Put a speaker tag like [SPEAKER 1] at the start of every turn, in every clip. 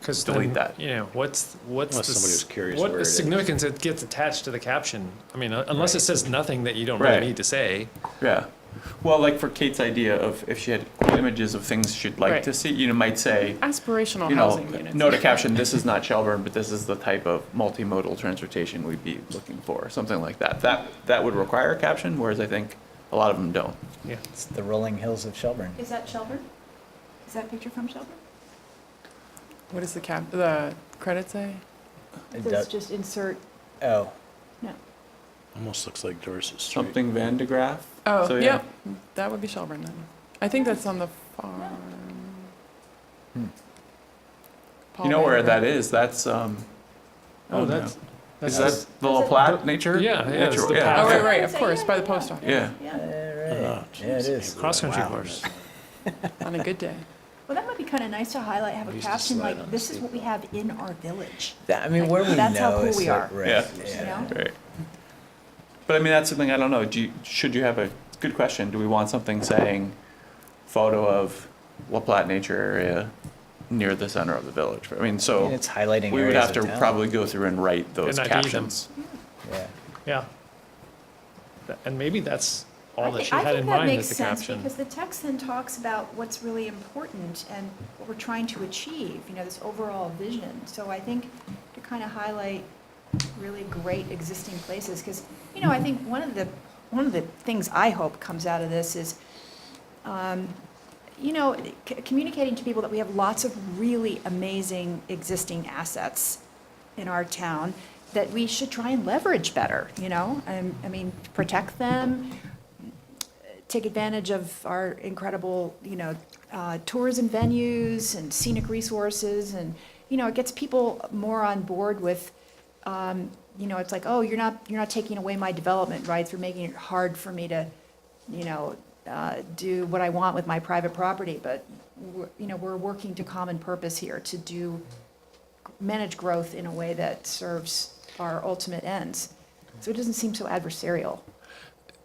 [SPEAKER 1] Because
[SPEAKER 2] Delete that.
[SPEAKER 1] You know, what's, what's the.
[SPEAKER 3] Unless somebody
[SPEAKER 1] s-
[SPEAKER 3] was curious where
[SPEAKER 1] What
[SPEAKER 3] it is.
[SPEAKER 1] significance it gets attached to the caption? I mean, uh, unless it says nothing that you don't
[SPEAKER 2] Right.
[SPEAKER 1] really need to say.
[SPEAKER 2] Yeah. Well, like for Kate's idea of if she had images of things she'd like
[SPEAKER 4] Right.
[SPEAKER 2] to see, you know, might say,
[SPEAKER 4] Aspirational
[SPEAKER 2] you know,
[SPEAKER 4] housing units.
[SPEAKER 2] note a caption, this is not Shelburne, but this is the type of multimodal transportation we'd be looking for, something like that. That, that would require a caption, whereas I think a lot of them don't.
[SPEAKER 1] Yeah.
[SPEAKER 5] It's the rolling hills of Shelburne.
[SPEAKER 6] Is that Shelburne? Is that picture from Shelburne?
[SPEAKER 4] What does the cap, the credit say?
[SPEAKER 5] It
[SPEAKER 6] Let's
[SPEAKER 5] does-
[SPEAKER 6] just insert,
[SPEAKER 5] Oh,
[SPEAKER 6] no.
[SPEAKER 3] Almost looks like Dorset Street.
[SPEAKER 2] Something Van de Graaff?
[SPEAKER 4] Oh,
[SPEAKER 2] So,
[SPEAKER 4] yep, that would be Shelburne then. I think that's on the far.
[SPEAKER 1] Hmm.
[SPEAKER 2] You know where that is? That's, um,
[SPEAKER 1] Oh,
[SPEAKER 2] Oh,
[SPEAKER 1] that's,
[SPEAKER 2] is
[SPEAKER 1] that's,
[SPEAKER 2] that the La Platte nature?
[SPEAKER 1] Yeah, yeah, it's
[SPEAKER 2] Nature-
[SPEAKER 1] the
[SPEAKER 2] yeah.
[SPEAKER 1] path.
[SPEAKER 4] Oh, right,
[SPEAKER 6] I'd
[SPEAKER 4] right, of
[SPEAKER 6] say,
[SPEAKER 4] course,
[SPEAKER 6] yeah,
[SPEAKER 4] by the
[SPEAKER 6] yeah,
[SPEAKER 4] post office,
[SPEAKER 2] Yeah.
[SPEAKER 6] Yeah,
[SPEAKER 5] all right.
[SPEAKER 3] Oh,
[SPEAKER 5] Yeah, it is.
[SPEAKER 1] Cross-country
[SPEAKER 5] Wow.
[SPEAKER 1] course.
[SPEAKER 4] on a good day.
[SPEAKER 6] well, that might be kind of nice to highlight, have
[SPEAKER 3] We
[SPEAKER 6] a
[SPEAKER 3] used to
[SPEAKER 6] caption
[SPEAKER 3] slide
[SPEAKER 6] like,
[SPEAKER 3] on
[SPEAKER 6] this is what we
[SPEAKER 3] skateboard.
[SPEAKER 6] have in our village,
[SPEAKER 5] That- I mean, where we
[SPEAKER 6] That's how
[SPEAKER 5] know
[SPEAKER 6] cool
[SPEAKER 5] is
[SPEAKER 6] we
[SPEAKER 5] like,
[SPEAKER 6] are.
[SPEAKER 5] right,
[SPEAKER 2] Yeah.
[SPEAKER 6] you know?
[SPEAKER 2] Right. But I mean, that's something I don't know. Do you, should you have a good question? Do we want something saying photo of La Platte Nature Area near the center of the village? I mean,
[SPEAKER 5] I
[SPEAKER 2] so
[SPEAKER 5] mean, it's highlighting
[SPEAKER 2] we would
[SPEAKER 5] areas
[SPEAKER 2] have to
[SPEAKER 5] of town.
[SPEAKER 2] probably go through and write
[SPEAKER 1] And
[SPEAKER 2] those
[SPEAKER 1] ID them.
[SPEAKER 2] captions.
[SPEAKER 5] Yeah.
[SPEAKER 1] yeah. Th- And maybe that's all
[SPEAKER 6] I
[SPEAKER 1] that
[SPEAKER 6] thi-
[SPEAKER 1] she had in mind as the
[SPEAKER 6] I think that makes sense,
[SPEAKER 1] caption.
[SPEAKER 6] because the text then talks about what's really important and what we're trying to achieve, you know, this overall vision. So I think to kind of highlight really great existing places, because, you know, I think one of the, one of the things I hope comes out of this is, um, you know, c- communicating to people that we have lots of really amazing existing assets in our town that we should try and leverage better, you know? Um, I mean, protect them, take advantage of our incredible, you know, uh, tourism venues and scenic resources, and, you know, it gets people more on board with, um, you know, it's like, oh, you're not, you're not taking away my development rights, you're making it hard for me to, you know, uh, do what I want with my private property, but, we're- you know, we're working to common purpose here, to do, manage growth in a way that serves our ultimate ends. So it doesn't seem so adversarial.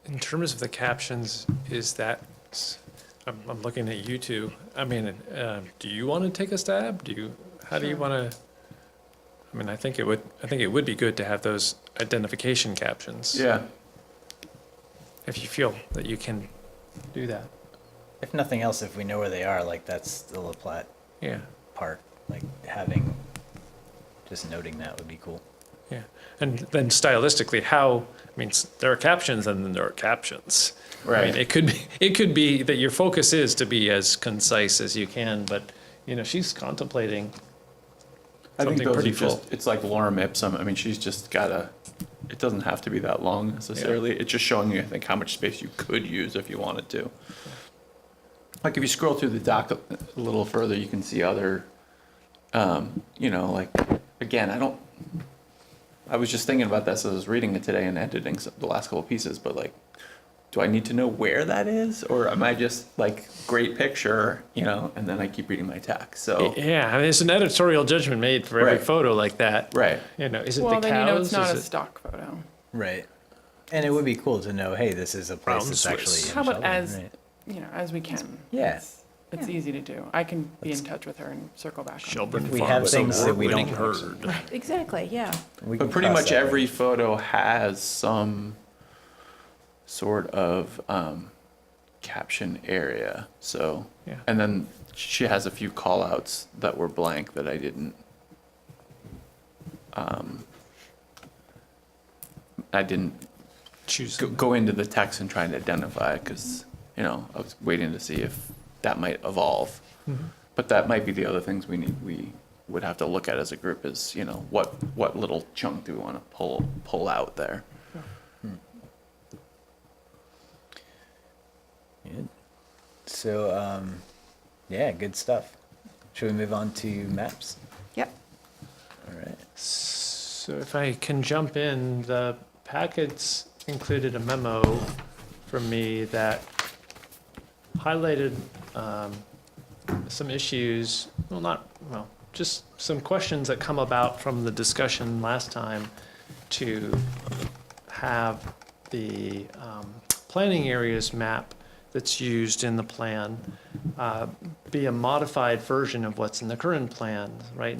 [SPEAKER 1] In terms of the captions, is that, s- I'm, I'm looking at you two. I mean, um, do you want to take a stab? Do you, how do you
[SPEAKER 6] Sure.
[SPEAKER 1] want to? I mean, I think it would, I think it would be good to have those identification captions.
[SPEAKER 2] Yeah.
[SPEAKER 1] If you feel that you can do that.
[SPEAKER 5] If nothing else, if we know where they are, like that's the La Platte
[SPEAKER 1] Yeah,
[SPEAKER 5] Park, like having, just noting that would be cool.
[SPEAKER 1] yeah. And then stylistically, how, I mean, s- there are captions and then there are captions. I mean,
[SPEAKER 2] Right.
[SPEAKER 1] it could be, it could be that your focus is to be as concise as you can, but, you know, she's contemplating
[SPEAKER 2] I think
[SPEAKER 1] Something
[SPEAKER 2] those are
[SPEAKER 1] pretty full.
[SPEAKER 2] just, it's like Lorem Ipsum. I mean, she's just gotta, it doesn't have to be that long necessarily. It's just showing you, I think, how much space you could use if you wanted to. Like if you scroll through the doc a a little further, you can see other, um, you know, like, again, I don't, I was just thinking about this as I was reading it today and editing some, the last couple pieces, but like, do I need to know where that is? Or am I just like, great picture, you know, and then I keep reading my text? So,
[SPEAKER 1] Yeah, I mean, it's an editorial judgment made for every
[SPEAKER 2] Oh. Right.
[SPEAKER 1] photo like that.
[SPEAKER 2] right.
[SPEAKER 1] You know, is it
[SPEAKER 4] Well,
[SPEAKER 1] the
[SPEAKER 4] then you
[SPEAKER 1] cows?
[SPEAKER 4] know it's not
[SPEAKER 1] Is
[SPEAKER 4] a
[SPEAKER 1] it-
[SPEAKER 4] stock photo.
[SPEAKER 5] Right. And it would be cool to know, hey, this is a place
[SPEAKER 1] Brown
[SPEAKER 5] that's
[SPEAKER 1] Swiss.
[SPEAKER 5] actually. in
[SPEAKER 4] How about
[SPEAKER 5] Shelburne,
[SPEAKER 4] as,
[SPEAKER 5] right.
[SPEAKER 4] you know, as we can.
[SPEAKER 5] Yeah.
[SPEAKER 4] It's
[SPEAKER 6] Yeah.
[SPEAKER 4] easy to do. I can be in touch with her and circle back. on it.
[SPEAKER 1] Shelburne
[SPEAKER 5] If we have
[SPEAKER 1] Farms
[SPEAKER 5] things that we
[SPEAKER 1] award-winning
[SPEAKER 5] don't-
[SPEAKER 1] herd.
[SPEAKER 6] Exactly, yeah.
[SPEAKER 5] We
[SPEAKER 2] But
[SPEAKER 5] can
[SPEAKER 2] pretty
[SPEAKER 5] cross
[SPEAKER 2] much
[SPEAKER 5] that
[SPEAKER 2] every
[SPEAKER 5] bridge.
[SPEAKER 2] photo has some sort of um, caption area. So,
[SPEAKER 1] Yeah.
[SPEAKER 2] and then she has a few callouts that were blank that I didn't. Um, I didn't
[SPEAKER 1] Choose.
[SPEAKER 2] go, go into the text and try and identify because you know I was waiting to see if that might evolve. But that might be the other things we need, we would have to look at as a group is, you know, what, what little chunk do we want to pull, pull out there?
[SPEAKER 5] Good. So, um, yeah, good stuff. Should we move on to maps?
[SPEAKER 6] Yep.
[SPEAKER 5] All right.
[SPEAKER 1] So if I can jump in, the packets included a memo from me that highlighted um, some issues, well, not, well, just some questions that come about from the discussion last time to have the um, planning areas map that's used in the plan uh, be a modified version of what's in the current plan. Right